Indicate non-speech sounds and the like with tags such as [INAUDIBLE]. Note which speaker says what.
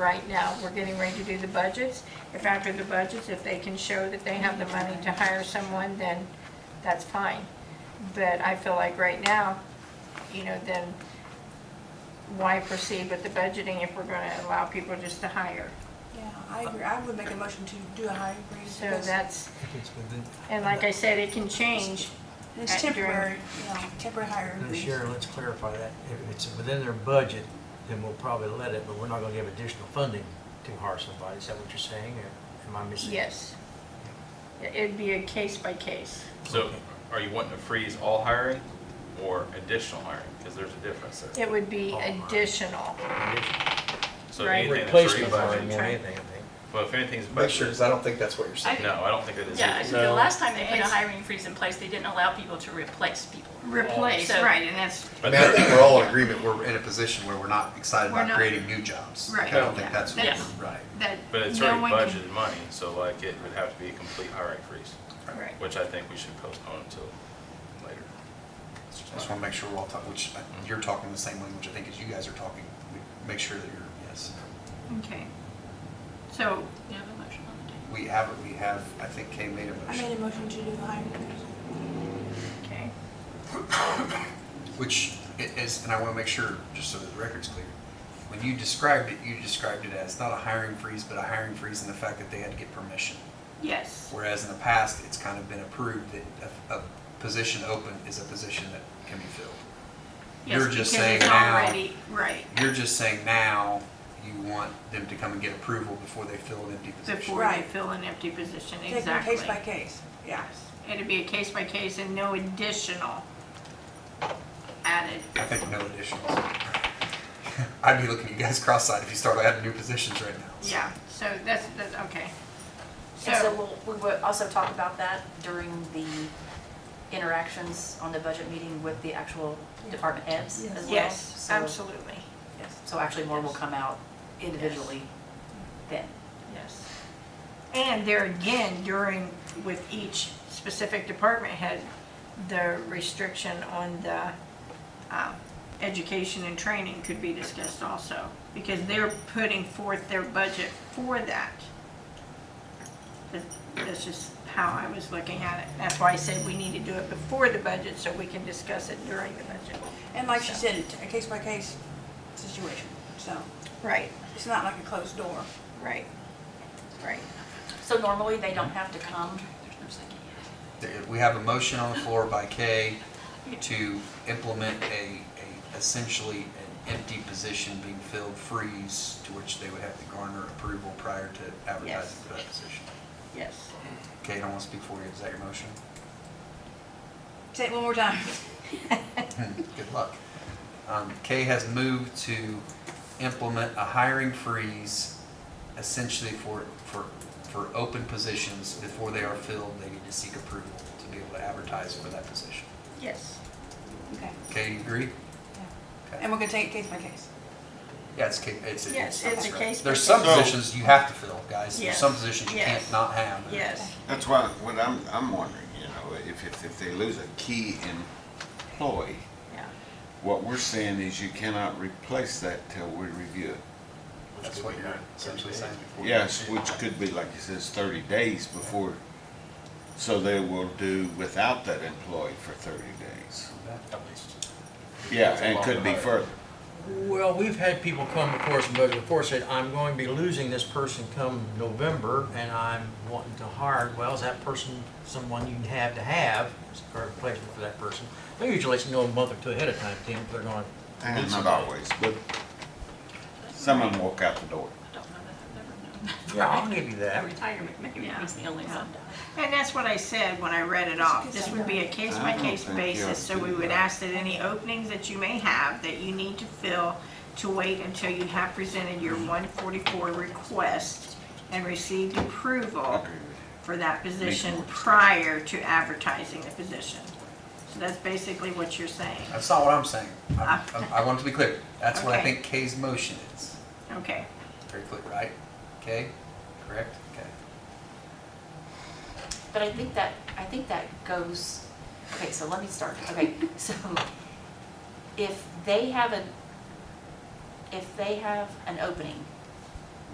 Speaker 1: Right now, we're getting ready to do the budgets. If after the budgets, if they can show that they have the money to hire someone, then that's fine. But I feel like right now, you know, then why proceed with the budgeting if we're going to allow people just to hire?
Speaker 2: Yeah, I agree. I would make a motion to do a hiring freeze.
Speaker 1: So
Speaker 2: because
Speaker 1: that's,
Speaker 3: It's within-
Speaker 1: and like I said, it can change.
Speaker 2: It's
Speaker 1: at- during-
Speaker 2: temporary, you know, temporary hiring
Speaker 3: Now,
Speaker 2: freeze.
Speaker 3: Sharon, let's clarify that. If it's within their budget, then we'll probably let it, but we're not gonna give additional funding to hire somebody. Is that what you're saying, or am I missing?
Speaker 1: Yes. It'd be a case by case.
Speaker 4: So are you wanting to freeze all hiring or additional hiring? Because there's a difference there.
Speaker 1: It would be additional.
Speaker 3: Additional-
Speaker 4: So
Speaker 1: Right.
Speaker 4: anything that's
Speaker 3: Replacement hiring
Speaker 4: rebudgeted,
Speaker 3: more than anything, I think.
Speaker 4: well, if anything's
Speaker 5: Make
Speaker 4: budgeted,
Speaker 5: sure, because I don't think that's what you're saying.
Speaker 4: no, I don't think it is.
Speaker 6: Yeah, I
Speaker 4: either.
Speaker 6: think the last time they put a
Speaker 1: It's-
Speaker 6: hiring freeze in place, they didn't allow people to replace people.
Speaker 1: Replace,
Speaker 6: So-
Speaker 1: right, and that's,
Speaker 5: I
Speaker 4: But
Speaker 5: mean, I think
Speaker 4: there-
Speaker 5: we're all in agreement, we're in a position where we're not excited
Speaker 1: We're
Speaker 5: about
Speaker 1: not-
Speaker 5: creating new jobs. Like,
Speaker 1: Right.
Speaker 5: I don't
Speaker 1: Yeah.
Speaker 5: think that's what
Speaker 6: That's-
Speaker 5: we're, right.
Speaker 1: that
Speaker 4: but it's
Speaker 1: no
Speaker 4: already
Speaker 1: one can.
Speaker 4: budgeted money, so like it would have to be a complete hiring freeze,
Speaker 1: Right.
Speaker 4: which I think we should postpone until later. It's
Speaker 5: I just
Speaker 4: just my-
Speaker 5: want to make sure we're all talking, which uh, you're talking the same language I think as you guys are talking. We- Make sure that you're, yes.
Speaker 1: Okay. So,
Speaker 6: You have a motion on the table.
Speaker 5: We have, it. we have, I think Kay made a
Speaker 2: I made
Speaker 5: motion,
Speaker 2: a motion to do the hiring freeze.
Speaker 1: okay,
Speaker 5: which i- is, and I want to make sure, just so that the record's clear. When you described it, you described it as not a hiring freeze, but a hiring freeze in the fact that they had to get permission.
Speaker 1: yes,
Speaker 5: Whereas in the past, it's kind of been approved that a, a position open is a position that can be filled.
Speaker 1: yes,
Speaker 5: You're
Speaker 1: because
Speaker 5: just saying
Speaker 1: it's
Speaker 5: now-
Speaker 1: already, right,
Speaker 5: You're just saying now you want them to come and get approval before they fill an empty position.
Speaker 1: before you
Speaker 2: Right.
Speaker 1: fill an empty position,
Speaker 2: Take it
Speaker 1: exactly.
Speaker 2: case by case, yeah.
Speaker 1: It'd be a case by case and no additional added.
Speaker 5: I think no additions. [LAUGHS] I'd be looking at you guys cross-eyed if you started adding new positions right now. so.
Speaker 1: Yeah, so that's, that's, okay.
Speaker 7: And so
Speaker 1: So,
Speaker 7: we'll, we will also talk about that during the interactions on the budget meeting with the actual department heads as well.
Speaker 1: yes,
Speaker 7: So-
Speaker 1: absolutely,
Speaker 7: yes. So actually more will come out individually then.
Speaker 1: yes. And there again, during, with each specific department head, the restriction on the um, education and training could be discussed also, because they're putting forth their budget for that. That- That's just how I was looking at it. That's why I said we need to do it before the budget, so we can discuss it during the budget.
Speaker 2: And like she
Speaker 1: So-
Speaker 2: said, it's a case by case situation, so
Speaker 1: Right,
Speaker 2: it's not like a closed door.
Speaker 1: right, right.
Speaker 7: So normally they don't have to come.
Speaker 5: There- We have a motion on the floor by Kay to implement a, a essentially an empty position being filled freeze to which they would have to garner approval prior to advertising for that position.
Speaker 1: Yes.
Speaker 5: Kay, I don't want to speak for you. Is that your motion? [LAUGHS]
Speaker 2: Say it one more time. [LAUGHS]
Speaker 5: Good luck. Um, Kay has moved to implement a hiring freeze essentially for, for, for open positions. Before they are filled, they need to seek approval to be able to advertise for that position.
Speaker 1: Yes.
Speaker 2: Okay.
Speaker 5: Kay, you agree?
Speaker 2: And we're gonna take it case by case.
Speaker 5: Yeah, it's, ca- it's.
Speaker 1: Yes, it's a
Speaker 5: right.
Speaker 1: case by
Speaker 5: There's some
Speaker 8: case.
Speaker 5: positions you have to fill, guys. There's
Speaker 1: Yes.
Speaker 5: some positions you
Speaker 1: Yes.
Speaker 5: can't not have.
Speaker 1: Yes,
Speaker 8: That's why, what I'm, I'm wondering, you know, if, if, if they lose a key employee,
Speaker 1: yeah.
Speaker 8: what we're saying is you cannot replace that till we review it.
Speaker 5: That's what you're essentially saying.
Speaker 8: Yes, which could be, like you says, thirty days before, so they will do without that employee for thirty days. Yeah, and it could be further.
Speaker 3: Well, we've had people come before us and budget before, said, I'm going to be losing this person come November, and I'm wanting to hire, well, is that person someone you have to have, or replacement for that person? They usually let you know a month or two ahead of time, Tim, if they're going to
Speaker 8: And
Speaker 3: lose
Speaker 8: not
Speaker 3: somebody.
Speaker 8: always, but some of them walk out the door.
Speaker 6: I don't know that I've ever known.
Speaker 3: Yeah, I'll give you
Speaker 6: that.
Speaker 3: that.
Speaker 6: Retirement, maybe
Speaker 1: Yeah.
Speaker 6: was the only
Speaker 1: Yeah.
Speaker 6: one.
Speaker 1: And that's what I said when I read it off. This would be a case-by-case
Speaker 8: I don't think you
Speaker 1: basis, so we would ask that any openings that you may have that you need to fill to wait until you have presented
Speaker 8: Mm-hmm.
Speaker 1: your 144 request and received
Speaker 8: I
Speaker 1: approval
Speaker 8: agree with you.
Speaker 1: for that position
Speaker 8: more sense.
Speaker 1: prior to advertising the position. So that's basically what you're saying.
Speaker 5: That's not what I'm saying. I'm- I'm- I want to be clear. That's what I
Speaker 1: Ah. Okay.
Speaker 5: think Kay's motion is.
Speaker 1: Okay,
Speaker 5: Very clear, right? Kay, correct? Okay.
Speaker 7: But I think that, I think that goes, okay, so let me start.
Speaker 1: [LAUGHS]
Speaker 7: Okay, so if they have an, if they have an opening